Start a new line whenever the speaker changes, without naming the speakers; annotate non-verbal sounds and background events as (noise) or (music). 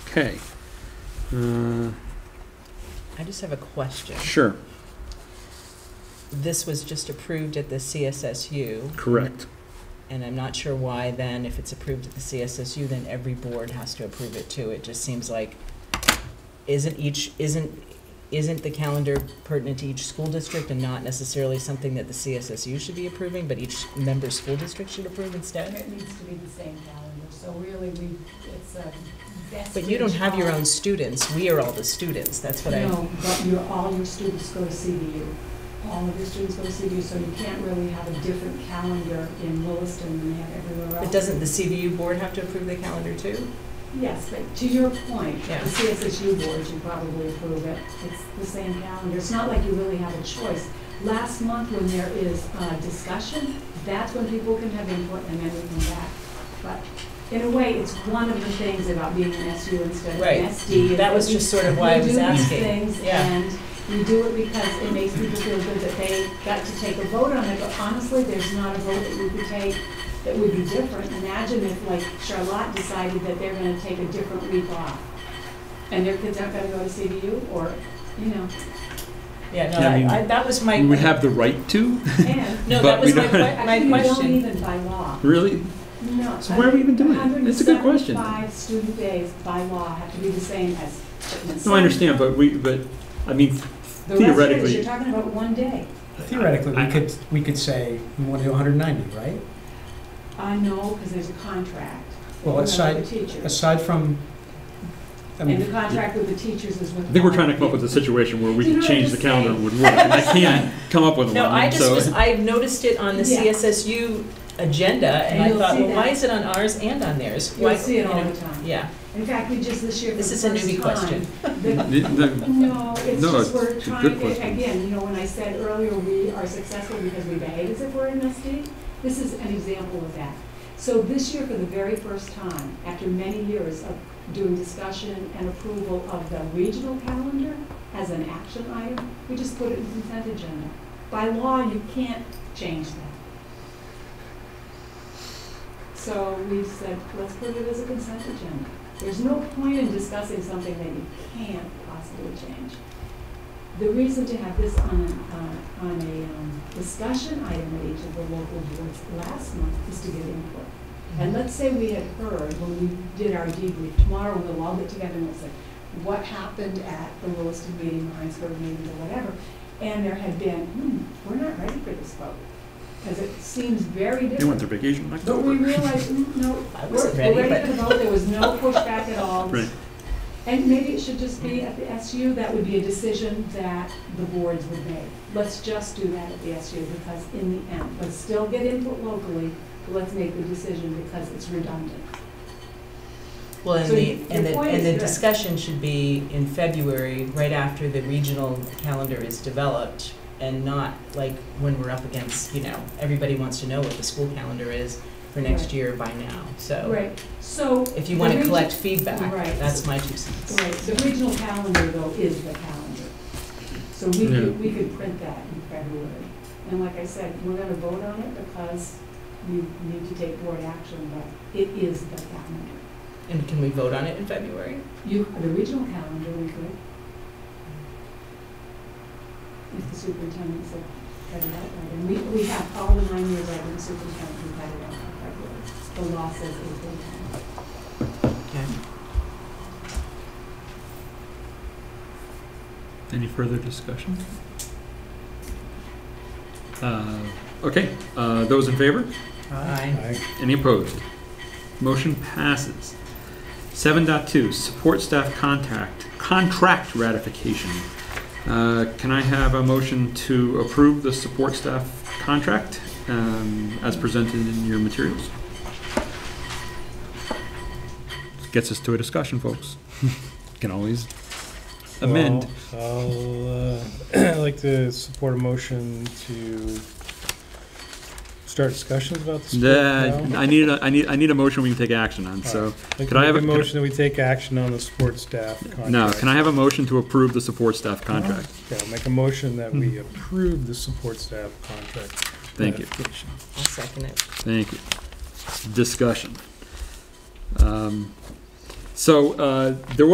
Okay. Uh,
I just have a question.
Sure,
This was just approved at the CSSU,
correct.
and I'm not sure why then, if it's approved at the CSSU, then every board has to approve it too. It just seems like, isn't each, isn't, isn't the calendar pertinent to each school district and not necessarily something that the CSSU should be approving, but each member school district should approve instead?
It needs to be the same calendar, so really we, it's um, a
But you don't have your own students, we are all the students, that's what I.
No, but your, all your students go to CBU. All of your students go to CBU, so you can't really have a different calendar in Williston than they have everywhere else.
But doesn't the CVU board have to approve the calendar too?
Yes, but to your point, the
Yeah.
CSSU board should probably approve it. It's the same calendar. It's not like you really have a choice. Last month, when there is uh, discussion, that's when people can have input and then we can back. But in a way, it's one of the things about being an SU instead of
Right.
an SD. is
That was
we-
just sort of why I was asking.
We do these things
Yeah.
and we do it because it makes people feel good that they got to take a vote on it. But honestly, there's not a vote that we could take that would be different. Imagine if, like, Charlotte decided that they're gonna take a different week off, and their kids aren't gonna go to CBU, or,
(laughs)
you know,
Yeah, no,
Yeah, I mean,
I- I- that was my.
We would have the right to,
and.
No,
but
that was
we
my,
don't-
que- my
Actually, (laughs) you don't
question.
even by law,
really?
no.
So why are we even doing it? It's a good question.
175 student days by law have to be the same as Chipman
No, I understand, but we, but, I mean,
The rest of it is
theoretically-
you're talking about one day.
Theoretically,
I-
we could, we could say, we want to do 190, right?
I know, because there's a contract.
Well,
with the
aside,
Teachers,
aside from, I
and the
mean,
contract with the teachers is with.
I think we're trying to come up with a situation where we
Do
can
you know what
change
I'm
the calendar
saying?
would work. And I can't come up with one,
No, I
and
just
so.
was, I noticed it on the
Yeah.
CSSU agenda, and
And
I
you'll
thought,
see
well, why
that.
is it on ours and on theirs? Why-
You'll see it
you
all
know,
the time.
Yeah,
In fact, we just this year, for the
this is
first
a
time.
newbie question.
the-
The- the-
No, it's
No,
just we're
it's a good
trying,
question.
to- again, you know, when I said earlier, we are successful because we behave as if we're an SD, this is an example of that. So this year, for the very first time, after many years of doing discussion and approval of the regional calendar as an action item, we just put it in consent agenda. By law, you can't change that. So we said, let's put it as a consent agenda. There's no point in discussing something that you can't possibly change. The reason to have this on, a- uh, on a um, discussion item at each of the local boards last month is to get input. And let's say we had heard when we did our debrief, tomorrow we'll all get together and we'll say, what happened at the Williston meeting, the Heinsberg meeting, or whatever? And there had been, hmm, we're not ready for this vote, because it seems
They
very
went
different.
their vacation in
But we
October.
realized, mm, no,
I
we're
wasn't
we're
ready,
ready
but
to vote, there was no pushback at all.
Right.
And maybe it should just be at the SU, that would be a decision that the boards would make. Let's just do that at the SU, because in the end, let's still get input locally, but let's make the decision because it's redundant.
Well, and
So
the,
you-
and
your
the,
point
and
is
the
good.
discussion should be in February, right after the regional calendar is developed, and not like when we're up against, you know, everybody wants to know what the school calendar is for next
Right.
year by now, so.
Right, so.
If you want
the
to
regi-
collect feedback,
Right.
that's my two cents.
Right, the regional calendar though is the calendar. So we could, we could print that in February. And like I said, we're gonna vote on it because we need to take board action, but it is the calendar.
And can we vote on it in February?
You, the regional calendar, we could. If the superintendent said, cut it out, right, and we, we have all the nine years I've been superintendent, we cut it out in February. The law says April tenth.
Okay.
Any further discussion? Uh, Okay, uh, those in favor?
Aye.
Any opposed? Motion passes. 7.2, support staff contact, contract ratification. Uh, Can I have a motion to approve the support staff contract um, as presented in your materials? Gets us to a discussion, folks. (laughs) Can always amend.
Well, I'll, uh, (clears throat) like to support a motion to start discussions about this.
Nah, I need, a- I need, I need a motion we can take action on, so, could I have
a
a- could I-
motion that we take action on the sports staff contract?
no, can I have a motion to approve the support staff contract?
Yeah, I'll make a motion that we approve the support staff contract.
Hmm. Thank you.
ratification.
I'll second it.
Thank you. Discussion. Um, So uh, there was.